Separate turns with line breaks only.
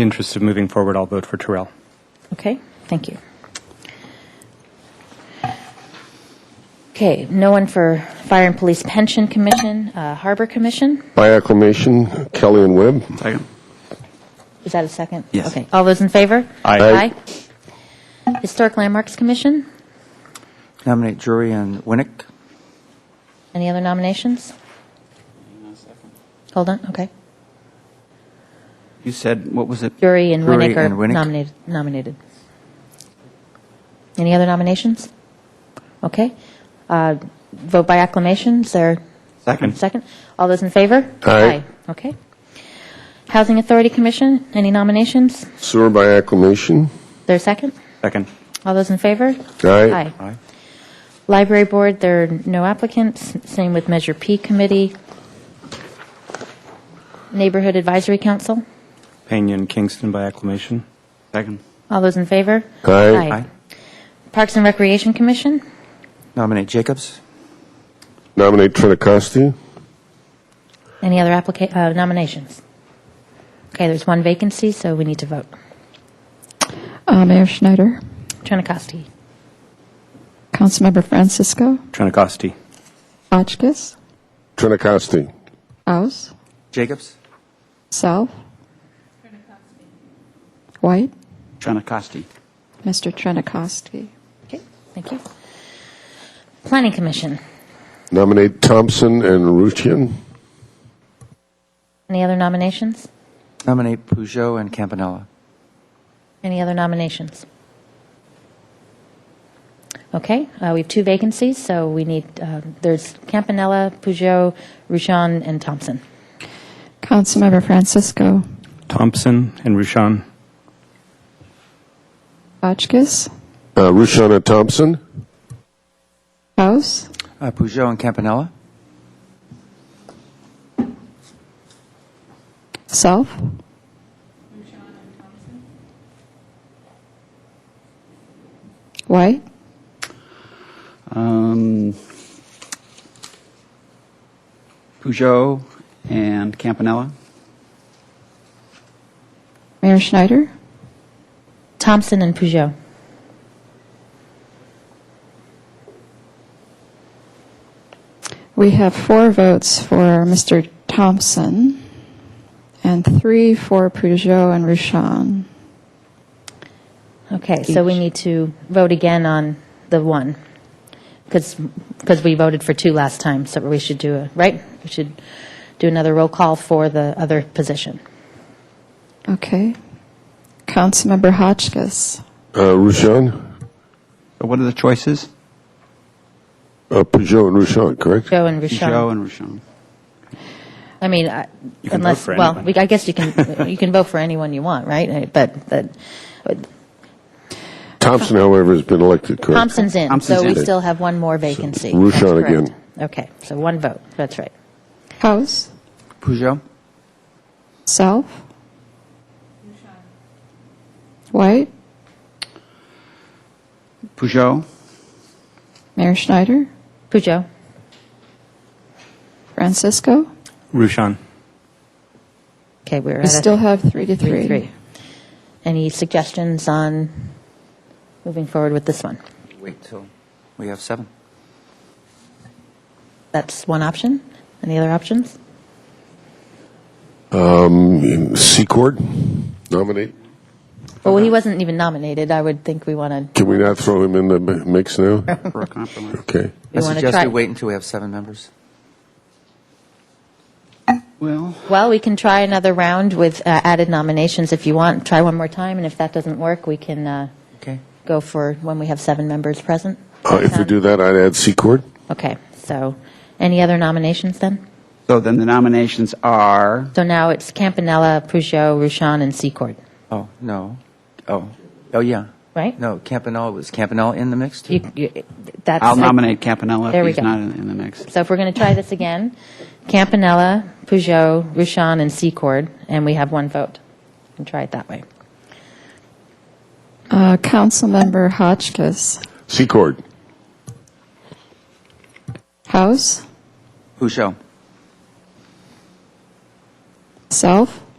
the interest of moving forward, I'll vote for Terrell.
Okay, thank you. Okay, no one for Fire and Police Pension Commission, uh, Harbor Commission?
By acclamation, Kelly and Webb.
Second.
Is that a second?
Yes.
Okay, all those in favor?
Aye.
Aye. Historic Landmarks Commission?
Nominate Drury and Winnick.
Any other nominations? Hold on, okay.
You said, what was it?
Jury and
Drury
Winnick are
and Winnick.
nominated. nominated. Any other nominations? Okay. Uh, Vote by acclamation, is there?
Second.
Second. All those in favor?
Aye.
Okay. Housing Authority Commission, any nominations? Is
Sewer by acclamation.
there a second?
Second.
All those in favor?
Aye.
Aye. Library Board, there are no applicants. Same with Measure P Committee. Neighborhood Advisory Council,
Pena and Kingston by acclamation. Second.
all those in favor?
Aye.
Aye.
Parks and Recreation Commission,
Nominate Jacobs.
Nominate Trinacosti.
any other applica- uh, nominations? Okay, there's one vacancy, so we need to vote.
Uh, Mayor Schneider,
Trenacosty,
Councilmember Francisco,
Trinacosti.
Hotchkiss,
Trinacosti.
Aus,
Jacobs.
Self, White,
Trenacosty.
Mr. Trenakowski.
okay, thank you. Planning Commission,
Nominate Thompson and Ruchin.
any other nominations?
Nominate Peugeot and Campanella.
Any other nominations? Okay, uh, we have two vacancies, so we need, uh, there's Campanella, Peugeot, Ruchon, and Thompson.
Councilmember Francisco,
Thompson and Ruchon.
Hotchkiss,
Uh, Ruchin and Thompson.
Aus,
Uh, Peugeot and Campanella.
Self. White,
Um, Peugeot and Campanella.
Mayor Schneider,
Thompson and Peugeot.
we have four votes for Mr. Thompson and three for Peugeot and Ruchon.
Okay, so we
Each.
need to vote again on the one, because, we voted for two last time, so we should do, a right? We should do another roll call for the other position.
Okay. Councilmember Hotchkiss,
Uh, Ruchin.
So what are the choices?
Uh, Peugeot and Ruchin, correct?
Peugeot and
Peugeot
Ruchon.
and Rochon.
I mean, I-
You can vote
unless,
for
well,
anyone.
we- I guess you can, you can vote for anyone you want, right? Uh, But, but
Thompson, however, has been elected, correct?
Thompson's in, so
Thompson's
we
in.
still have one more vacancy.
Ruchon
That's correct.
again.
Okay, so one vote, that's right.
House,
Peugeot.
Self, White,
Peugeot,
Mayor Schneider,
Peugeot,
Francisco.
Ruchon.
okay, we're at
We
a...
still have three to
Three,
three.
three. Any suggestions on moving forward with this one?
Wait till we have seven.
That's one option. Any other options?
Um, Secord. Nominate.
Well, he wasn't even nominated. I would think we want to,
Can we not throw him in the mi- mix now?
for a compromise.
Okay.
we
I
want to
suggest
try.
we wait until we have seven members.
Well,
Well, we can try another round with uh, added nominations if you want. Try one more time, and if that doesn't work, we can uh,
Okay.
go for when we have seven members present.
Uh, if we do that, I'd add Secord.
Okay, so any other nominations then?
so then the nominations are
So now it's Campanella, Peugeot, Ruchon, and Secord,
Oh, no. Oh. Oh, yeah.
right?
No, Campanella. Was Campanella in the mix? too?
You- you- that's
I'll
the-
nominate Campanella
There
if
we
he's
go.
not in, in the mix.
So if we're going to try this again, Campanella, Peugeot, Ruchon, and Secord, and we have one vote. And try it that way.
Uh, Councilmember Hotchkiss,
Secord.
House,
Peugeot.
Self,